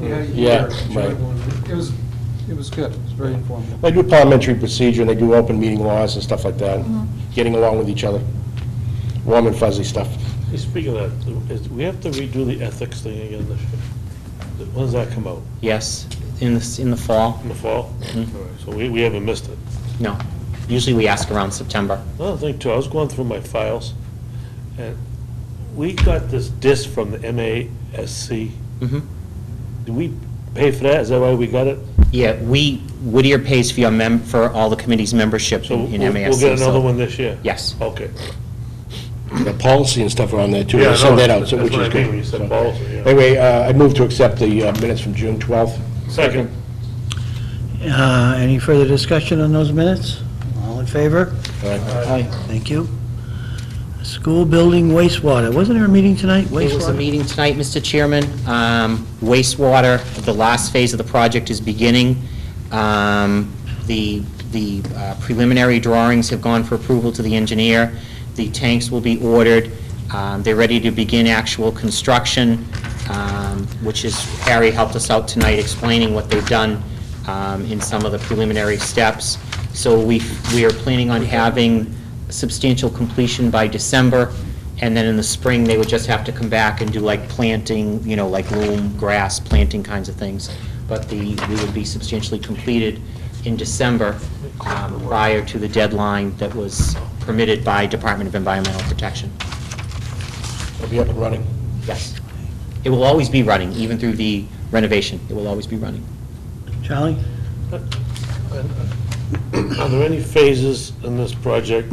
You had a Yeah, year to right. everyone. It was, it was good, it was very informative. They do parliamentary procedure, and they do open meeting laws and stuff like that, getting along with each other, warm and fuzzy stuff. Hey, Speaking of that, is, we have to redo the ethics thing again this year. When does that come out? Yes, in the, s- in the fall? In the fall? All right, So we, we haven't missed it. No. Usually we ask around September. Another thing too, I was going through my files, and we got this disc from the MASC. Mhm. Did we pay for that? Is that why we got it? Yeah, we, Whittier pays for your mem, for all the committee's membership So in we'll in we'll MASC. get so- another one this year? Yes. Okay. The policy and stuff are on there, too. Yeah, They I send know. that out, so- That's which what I is mean good. when you said So- policy, yeah. Anyway, uh, I move to accept the uh, minutes from June 12th. Second. Uh, Any further discussion on those minutes? All in favor? All right. Thank you. School building wastewater, wasn't there a meeting tonight? There was a Wastewater? meeting tonight, Mr. Chairman. Um, Wastewater, the last phase of the project is beginning. Um, The the uh, preliminary drawings have gone for approval to the engineer. The tanks will be ordered. Um, They're ready to begin actual construction, um, which is, Harry helped us out tonight explaining what they've done um, in some of the preliminary steps. So we we are planning on having substantial completion by December. And then in the spring, they would just have to come back and do like planting, you know, like loom, grass, planting kinds of things. But the, we would be substantially completed in December um, prior to the deadline that was permitted by Department of Environmental Protection. I'll be up and running. Yes. It will always be running, even through the renovation. It will always be running. Charlie? Are there any phases in this project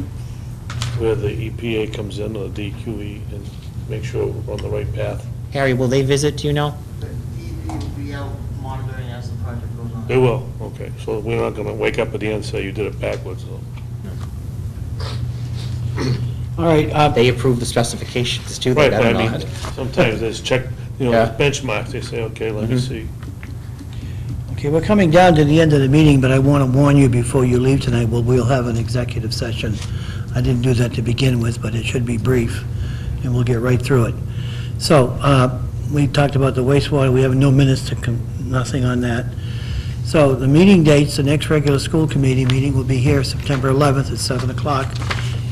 where the EPA comes in or the DQE and make sure we're on the right path? Harry, will they visit, do you know? The DEP will be out monitoring as the project goes on. They will, okay. So we're not gonna wake up at the end and say you did it backwards, though. All right, uh, They approve the specifications too. They um, Right, but better I mean, not. sometimes there's check, you know, Yeah. benchmarks, they say, okay, let me see. okay, we're coming down to the end of the meeting, but I want to warn you before you leave tonight, well, we'll have an executive session. I didn't do that to begin with, but it should be brief, and we'll get right through it. So, uh, we talked about the wastewater, we have no minutes to, com- nothing on that. So the meeting dates, the next regular school committee meeting will be here September 11th at 7 o'clock,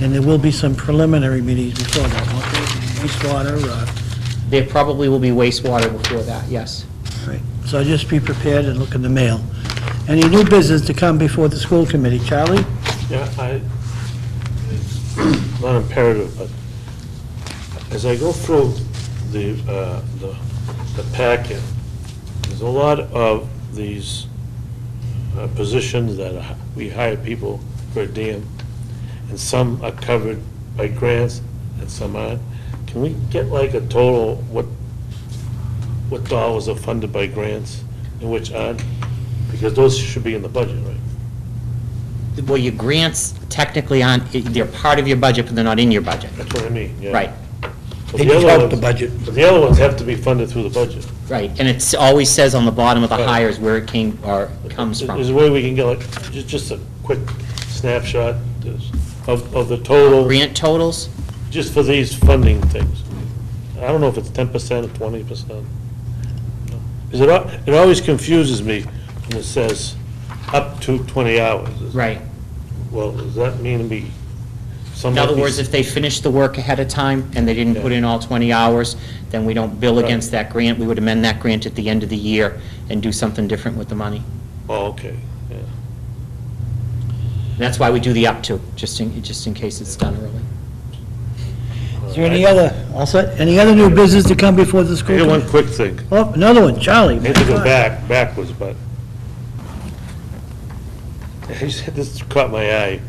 and there will be some preliminary meetings before that, won't there? wastewater, uh, There probably will be wastewater before that, yes. Right, so just be prepared and look in the mail. Any new business to come before the school committee? Charlie? Yeah, I, not imperative, but as I go through the, uh, the the packet, there's a lot of these uh, positions that are- we hire people per diem, and some are covered by grants and some aren't. Can we get like a total, what, what dollars are funded by grants and which aren't? Because those should be in the budget, right? Well, your grants technically aren't, they're part of your budget, but they're not in your budget. That's what I mean, yeah. Right, But They the just other help the ones- budget. But the other ones have to be funded through the budget. right. And it's always says on the bottom of the Right. hires where it came, or comes Is- Is from. there a way we can get like, ju- just a quick snapshot of, of the total, Grant totals, just for these funding things? I don't know if it's ten percent or twenty percent. Because it, al- it always confuses me when it says up to twenty hours. right. Well, does that mean to be In somebody? other words, if they finish the work ahead of time and they didn't put in all 20 hours, then we don't bill Right. against that grant. We would amend that grant at the end of the year and do something different with the money. Oh, okay, yeah. And That's why we do the up to, just in, just in case it's done early. Is there any other, all set? Any other new business to come before the school Here's one committee? quick thing. Oh, another one, Charlie. I hate to go back, backwards, but I just had- this caught my eye.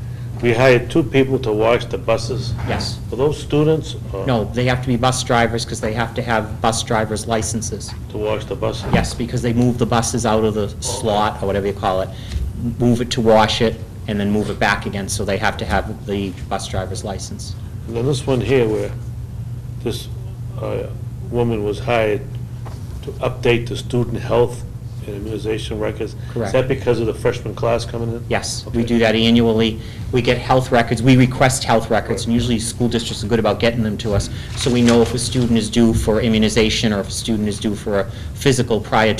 We hired two people to watch the buses. Yes. Were those students? or No, they have to be bus drivers because they have to have bus driver's licenses. To watch the buses? Yes, because they move the buses out of the slot, or whatever you call it, move it to wash it, and then move it back again, so they have to have the bus driver's license. And then this one here where this uh, woman was hired to update the student health and immunization records. Correct. Is that because of the freshman class coming in? Yes, we Okay. do that annually. We get health records, we request health records, and usually school districts are good about getting them to us, so we know if a student is due for immunization, or if a student is due for a physical prior